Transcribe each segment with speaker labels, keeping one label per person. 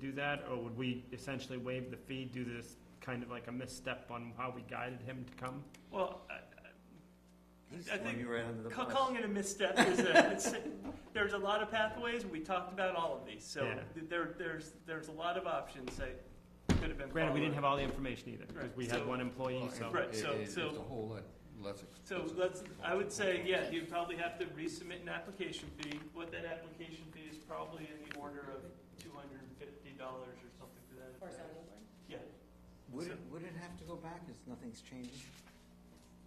Speaker 1: do that, or would we essentially waive the fee, do this kind of like a misstep on how we guided him to come?
Speaker 2: Well, I- I
Speaker 3: Throw
Speaker 2: think
Speaker 3: you right under the
Speaker 2: ca-
Speaker 3: bus.
Speaker 2: calling it a misstep is a, it's, there's a lot of pathways. We talked about all of these, so
Speaker 1: Yeah.
Speaker 2: th- there, there's there's a lot of options that could have been.
Speaker 1: Granted, we didn't have
Speaker 2: followed.
Speaker 1: all the information either, because
Speaker 2: Right,
Speaker 1: we had
Speaker 2: so-
Speaker 1: one employee,
Speaker 4: Well,
Speaker 1: so.
Speaker 4: it-
Speaker 2: Right,
Speaker 4: it-
Speaker 2: so-
Speaker 4: it- It's
Speaker 2: so-
Speaker 4: a whole lot less
Speaker 2: So
Speaker 4: expensive.
Speaker 2: let's. I would say, yeah, you probably have to resubmit an application fee. What that application fee is probably in the order of two hundred and fifty dollars or something to that.
Speaker 5: Or
Speaker 2: effect.
Speaker 5: zoning board.
Speaker 2: Yeah,
Speaker 3: Would it, would it have to go back if nothing's changing?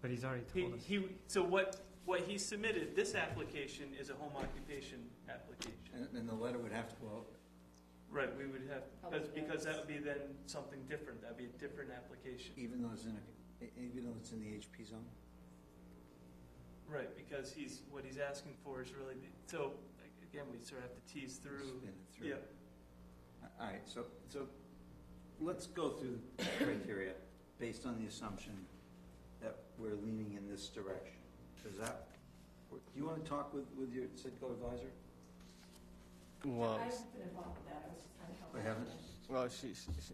Speaker 1: But he's already
Speaker 2: he,
Speaker 1: told us.
Speaker 2: he. So what what he submitted this application is a home occupation application.
Speaker 3: And, and the letter would have to go out?
Speaker 2: Right, we would have, because,
Speaker 5: Public
Speaker 2: because that
Speaker 5: notice.
Speaker 2: would be then something different, that'd be a different application.
Speaker 3: Even though it's in a, e- even though it's in the HP zone?
Speaker 2: Right, because he's, what he's asking for is really, the- so, like, again, we sort of have to tease through.
Speaker 3: Spin it through.
Speaker 2: Yeah,
Speaker 3: All right, so, so let's go through the criteria based on the assumption that we're leaning in this direction. Does that, do you want to talk with, with your Citgo advisor?
Speaker 5: I've been involved with that, I was just trying to help.
Speaker 3: I haven't.
Speaker 6: Well, she's, she's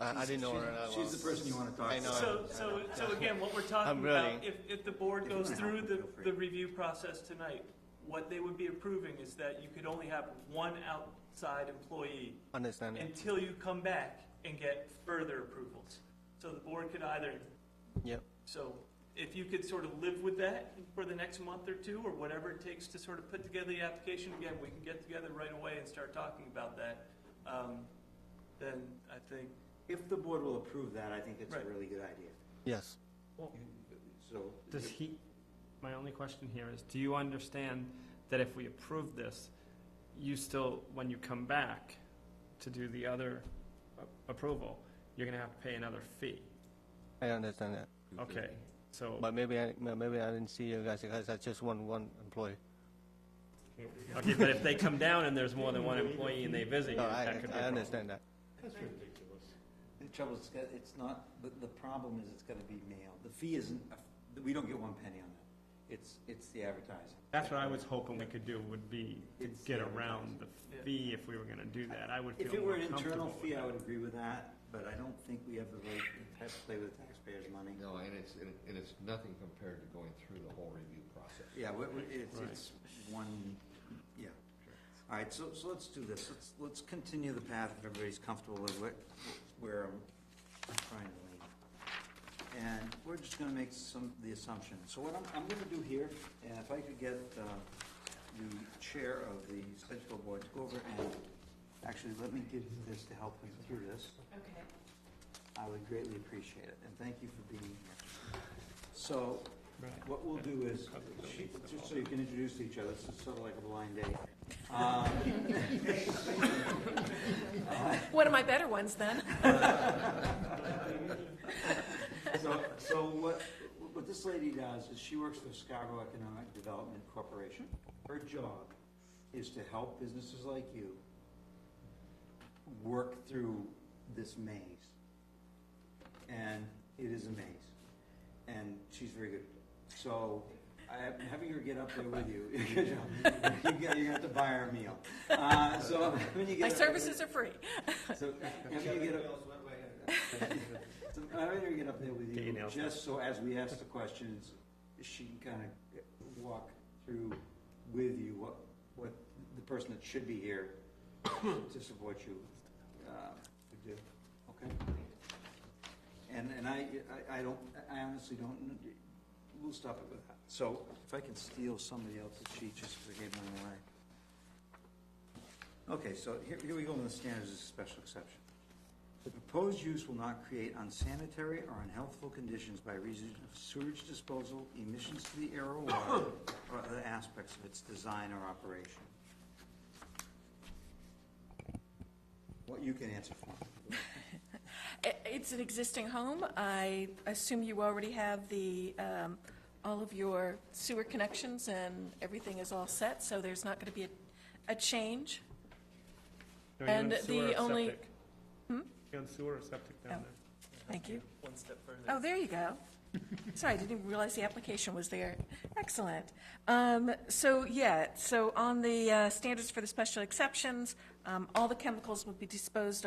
Speaker 6: I, I didn't know her. and I
Speaker 3: She's- She's
Speaker 6: lost-
Speaker 3: the person you want to talk to.
Speaker 6: I know.
Speaker 2: so, so, so again, what we're talking
Speaker 6: I'm
Speaker 2: about,
Speaker 6: running.
Speaker 2: if, if the board
Speaker 3: If you
Speaker 2: goes
Speaker 3: wanna
Speaker 2: through
Speaker 3: help,
Speaker 2: the,
Speaker 3: feel free.
Speaker 2: the review process tonight, what they would be approving is that you could only have one outside employee
Speaker 6: Understand it.
Speaker 2: until you come back and get further approvals. So the board could either
Speaker 6: Yep.
Speaker 2: So if you could sort of live with that for the next month or two, or whatever it takes to sort of put together the application, again, we can get together right away and start talking about that. Um, Then I think,
Speaker 3: If the board will approve that, I think it's a
Speaker 2: Right.
Speaker 3: really good idea.
Speaker 6: Yes.
Speaker 3: You- So.
Speaker 1: Does he, my only question here is, do you understand that if we approve this, you still, when you come back to do the other a- approval, you're gonna have to pay another fee?
Speaker 6: I understand that.
Speaker 1: Okay, so,
Speaker 6: But maybe I maybe I didn't see you guys because I just want one employee.
Speaker 1: okay, but if they come down and there's more than one employee and they visit you,
Speaker 6: No, I,
Speaker 1: that could be
Speaker 6: I
Speaker 1: a problem.
Speaker 6: understand that.
Speaker 3: The trouble is, it's got- it's not, the, the problem is it's gonna be mailed. The fee isn't, a- we don't get one penny on that. It's, it's the advertising.
Speaker 1: That's what I was hoping we could do, would be to
Speaker 3: It's
Speaker 1: get
Speaker 3: the
Speaker 1: around the
Speaker 2: Yeah.
Speaker 1: fee if we were gonna do that. I would
Speaker 3: If
Speaker 1: feel
Speaker 3: it were
Speaker 1: more
Speaker 3: an
Speaker 1: comfortable
Speaker 3: internal
Speaker 1: with
Speaker 3: fee, I
Speaker 1: that.
Speaker 3: would agree with that, but I don't think we have the right to have to play with taxpayers' money.
Speaker 4: No, and it's, and it- and it's nothing compared to going through the whole review process.
Speaker 3: Yeah, we- we- it's,
Speaker 1: Right.
Speaker 3: it's one, yeah. All right, so, so let's do this. Let's, let's continue the path if everybody's comfortable with what, where I'm trying to lean. And we're just gonna make some, the assumption. So what I'm, I'm gonna do here, and if I could get, uh, the chair of the Sedgefield Board to go over and, actually, let me give you this to help him through this.
Speaker 5: Okay.
Speaker 3: I would greatly appreciate it, and thank you for being here. So, what we'll do is, she- just so you can introduce each other, this is sort of like a blind date. Um,
Speaker 5: One of my better ones, then.
Speaker 3: So, so what, what this lady does is she works for Scarborough Economic Development Corporation. Her job is to help businesses like you work through this maze. And it is a maze. And she's very good. So I, having her get up there with you, you're gonna you're gonna have to buy her a meal. Uh, so when you get.
Speaker 5: My
Speaker 3: up-
Speaker 5: services are free.
Speaker 3: So having her get up. So I don't even get up there with you,
Speaker 1: Taking notes.
Speaker 3: just so as we ask the questions, she can kind of walk through with you what, what the person that should be here to support you, uh, would do, okay? And, and I, I, I don't, I honestly don't, kn- we'll stop it with that. So if I can steal somebody else's sheet just because I gave mine away. Okay, so here, here we go on the standards as a special exception. The proposed use will not create unsanitary or unhealthful conditions by reason of sewage disposal, emissions to the air or water, or other aspects of its design or operation. What you can answer for.
Speaker 5: I- It's an existing home. I assume you already have the, um, all of your sewer connections and everything is all set, so there's not going to be a, a change.
Speaker 1: Are you on
Speaker 5: And
Speaker 1: sewer
Speaker 5: the
Speaker 1: or
Speaker 5: only- Hmm?
Speaker 1: septic? You on sewer or septic down
Speaker 5: Oh.
Speaker 1: there?
Speaker 5: Thank you.
Speaker 2: one step further.
Speaker 5: Oh, there you go. Sorry, I didn't even realize the application was there. Excellent. Um, So, yeah, so on the uh, standards for the special exceptions, um, all the chemicals will be disposed of.